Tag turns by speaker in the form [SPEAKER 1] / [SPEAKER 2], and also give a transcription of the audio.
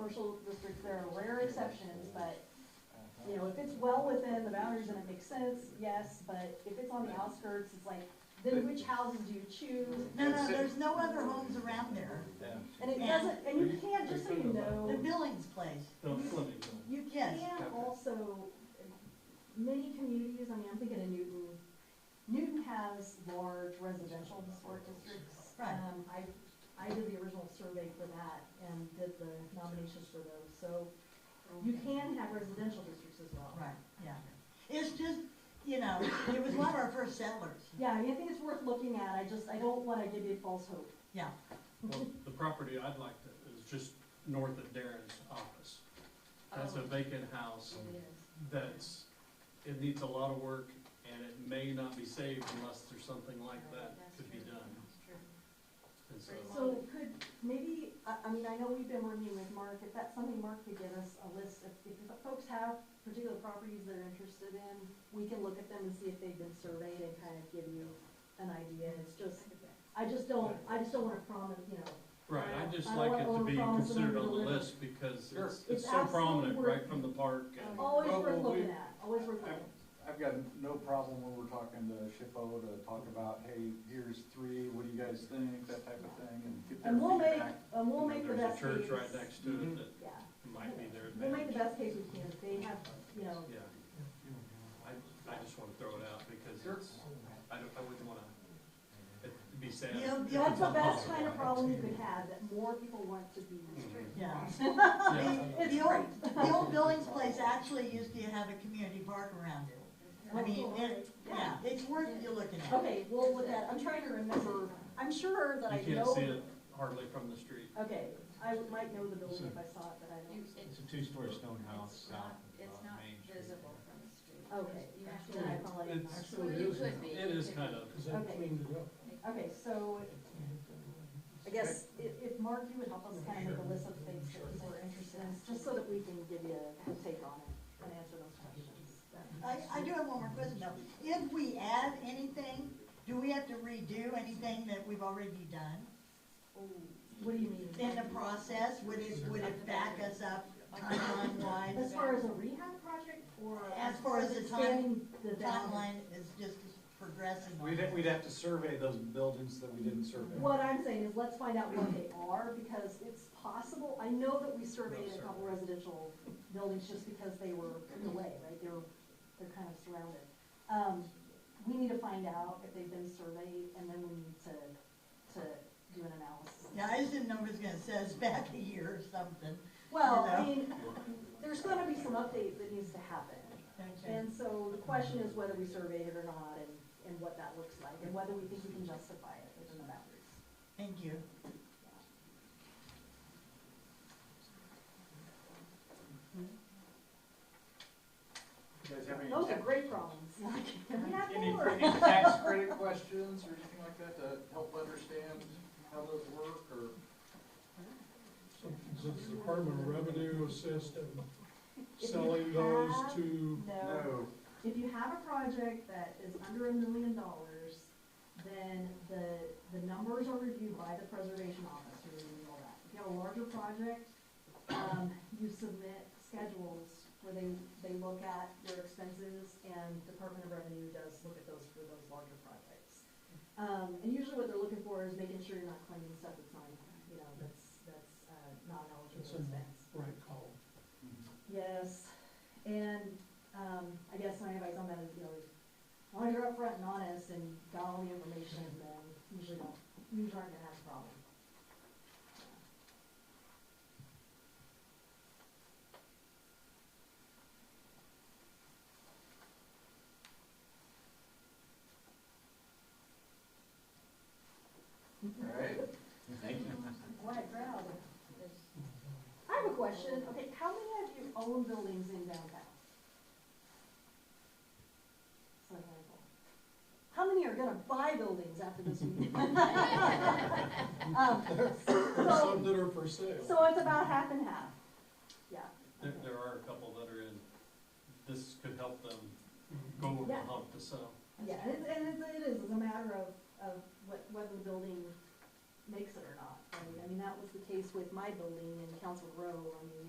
[SPEAKER 1] commercial districts, there are rare exceptions, but, you know, if it's well within the boundaries and it makes sense, yes, but if it's on the outskirts, it's like, then which houses do you choose?
[SPEAKER 2] No, no, there's no other homes around there.
[SPEAKER 1] And it doesn't, and you can't, just so you
[SPEAKER 2] The
[SPEAKER 1] know,
[SPEAKER 2] Billings place,
[SPEAKER 3] No, Fleming,
[SPEAKER 2] you
[SPEAKER 1] can
[SPEAKER 2] can.
[SPEAKER 1] also, many communities, I mean, I'm thinking of Newton, Newton has large residential historic districts.
[SPEAKER 2] Right.
[SPEAKER 1] Um, I, I did the original survey for that and did the nominations for those, so you can have residential districts as well.
[SPEAKER 2] Right, yeah. It's just, you know, it was one of our first settlers.
[SPEAKER 1] Yeah, I mean, I think it's worth looking at, I just, I don't wanna give you false hope.
[SPEAKER 2] Yeah,
[SPEAKER 3] well, the property I'd like to, is just north of Darren's office. That's a vacant house that's, it needs a lot of work, and it may not be saved unless there's something like that could be done. And so,
[SPEAKER 1] So could, maybe, I, I mean, I know we've been working with Mark, if that's something Mark could give us a list, if, if the folks have particular properties they're interested in, we can look at them and see if they've been surveyed and kind of give you an idea, it's just, I just don't, I just don't wanna promise, you know,
[SPEAKER 3] right, I'd just
[SPEAKER 1] I
[SPEAKER 3] like it to
[SPEAKER 1] want
[SPEAKER 3] be
[SPEAKER 1] overpromise and
[SPEAKER 3] considered on the
[SPEAKER 1] underdeliver.
[SPEAKER 3] list because
[SPEAKER 4] Sure.
[SPEAKER 3] it's,
[SPEAKER 1] It's
[SPEAKER 3] it's so
[SPEAKER 1] absolutely
[SPEAKER 3] prominent,
[SPEAKER 1] worth-
[SPEAKER 3] right from the park. and-
[SPEAKER 1] always
[SPEAKER 4] Well,
[SPEAKER 1] worth
[SPEAKER 4] well, we-
[SPEAKER 1] looking at, always worth looking. at.
[SPEAKER 4] I've got no problem when we're talking to Shippo to talk about, hey, here's three, what do you guys think, that type of thing, and get their
[SPEAKER 1] And we'll make,
[SPEAKER 4] feedback.
[SPEAKER 1] and we'll make the best case.
[SPEAKER 3] There's a church right next to it
[SPEAKER 4] Mhm.
[SPEAKER 3] that
[SPEAKER 1] Yeah,
[SPEAKER 3] might be their
[SPEAKER 1] Mm-hmm. we'll make the
[SPEAKER 3] advantage.
[SPEAKER 1] best case we can, if they have, you know,
[SPEAKER 3] Yeah. I, I just wanna throw it out because it's, I don't, I wouldn't wanna, it'd be sad.
[SPEAKER 2] Yeah,
[SPEAKER 3] if
[SPEAKER 2] yeah,
[SPEAKER 1] that's
[SPEAKER 3] it's
[SPEAKER 1] the best
[SPEAKER 3] impossible.
[SPEAKER 1] kind of problem you could have, that more people want to be.
[SPEAKER 3] Mhm.
[SPEAKER 2] yeah.
[SPEAKER 3] Yeah,
[SPEAKER 1] It's
[SPEAKER 2] The old,
[SPEAKER 1] great.
[SPEAKER 2] the old Billings place actually used to have a community park around it. I mean, it, yeah, it's worth you looking at.
[SPEAKER 1] Oh, Okay, well, with that, I'm trying to remember, I'm sure that I
[SPEAKER 3] you
[SPEAKER 1] know.
[SPEAKER 3] can't see it hardly from the street.
[SPEAKER 1] Okay, I might know the building if I saw it, but I
[SPEAKER 5] You,
[SPEAKER 1] don't.
[SPEAKER 6] It's
[SPEAKER 5] it's,
[SPEAKER 6] a two-story stone house
[SPEAKER 5] it's
[SPEAKER 6] south
[SPEAKER 5] not,
[SPEAKER 6] of
[SPEAKER 5] it's
[SPEAKER 6] uh,
[SPEAKER 5] not
[SPEAKER 6] Main Street.
[SPEAKER 5] visible from the street.
[SPEAKER 1] Okay,
[SPEAKER 5] You have
[SPEAKER 1] then I
[SPEAKER 5] to,
[SPEAKER 1] apologize.
[SPEAKER 3] It's-
[SPEAKER 5] well, you could be.
[SPEAKER 3] It is kind of,
[SPEAKER 1] Okay, okay, so I guess if, if Mark, you would help us kind of make a list of things that people are interested in, just so that we can give you a take on it and answer those questions.
[SPEAKER 2] I, I do have one more question though. If we add anything, do we have to redo anything that we've already done
[SPEAKER 1] What do you mean?
[SPEAKER 2] in the process? Would it, would it back us up timeline
[SPEAKER 1] As
[SPEAKER 2] wise?
[SPEAKER 1] far as a rehab project or?
[SPEAKER 2] As far as the time-
[SPEAKER 1] expanding the boundaries?
[SPEAKER 2] Timeline is just progressing.
[SPEAKER 4] We'd, ha- we'd have to survey those buildings that we didn't survey.
[SPEAKER 1] What I'm saying is, let's find out what they are, because it's possible, I know that we surveyed a couple residential buildings just because they were in the way, right, they were, they're kind of surrounded. Um, we need to find out if they've been surveyed, and then we need to, to do an analysis.
[SPEAKER 2] Yeah, I just didn't know if it was gonna set us back a year or something.
[SPEAKER 1] Well, I
[SPEAKER 2] You know?
[SPEAKER 1] mean, there's gonna be some update that needs to happen,
[SPEAKER 2] Okay.
[SPEAKER 1] and so the question is whether we surveyed it or not, and, and what that looks like, and whether we think we can justify it within the boundaries.
[SPEAKER 2] Thank you.
[SPEAKER 4] You guys have any
[SPEAKER 1] Those are
[SPEAKER 4] tax-
[SPEAKER 1] great problems. We have
[SPEAKER 4] Any,
[SPEAKER 1] more.
[SPEAKER 4] any tax credit questions or anything like that to help understand how those work, or?
[SPEAKER 7] Does the Department of Revenue assist in
[SPEAKER 1] If you
[SPEAKER 7] selling those
[SPEAKER 1] have-
[SPEAKER 7] to,
[SPEAKER 1] No, if you have a project that is under a million dollars, then the, the numbers are reviewed by the preservation office, who reviews all that. If you have a larger project, um, you submit schedules where they, they look at your expenses, and Department of Revenue does look at those for those larger projects. Um, and usually what they're looking for is making sure you're not claiming stuff that's not, you know, that's, that's, uh, not an
[SPEAKER 7] It's
[SPEAKER 1] eligible
[SPEAKER 7] in the
[SPEAKER 1] expense.
[SPEAKER 7] right column?
[SPEAKER 1] Yes, and, um, I guess my advice on that is, you know, as long as you're upfront and honest and got all the information, then usually don't, usually aren't gonna have a problem.
[SPEAKER 4] All right,
[SPEAKER 1] What crowd? I have a question, okay, how many of you own buildings in downtown? It's not very cool. How many are gonna buy buildings after this meeting? Um,
[SPEAKER 7] There's
[SPEAKER 1] so-
[SPEAKER 7] some that are for sale.
[SPEAKER 1] So it's about half and half. Yeah.
[SPEAKER 3] there, there are a couple that are in, this could help them
[SPEAKER 1] Mm-hmm.
[SPEAKER 3] go over the
[SPEAKER 1] Yeah.
[SPEAKER 3] hump to sell.
[SPEAKER 1] Yeah, and it's, and it's, it is, it's a matter of, of what, whether the building makes it or not, right? I mean, that was the case with my building in Council Row, I mean,